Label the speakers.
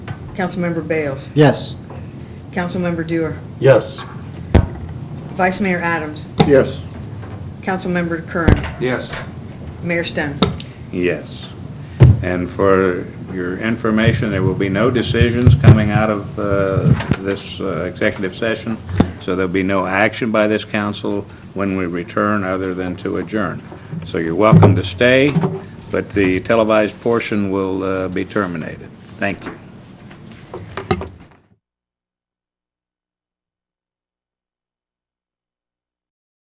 Speaker 1: Councilmember Bales.
Speaker 2: Yes.
Speaker 1: Councilmember Dewar.
Speaker 3: Yes.
Speaker 1: Vice Mayor Adams.
Speaker 3: Yes.
Speaker 1: Councilmember Curran.
Speaker 4: Yes.
Speaker 1: Mayor Stone.
Speaker 5: Yes. And for your information, there will be no decisions coming out of uh, this uh, executive session, so there'll be no action by this council when we return other than to adjourn. So you're welcome to stay, but the televised portion will uh, be terminated. Thank you.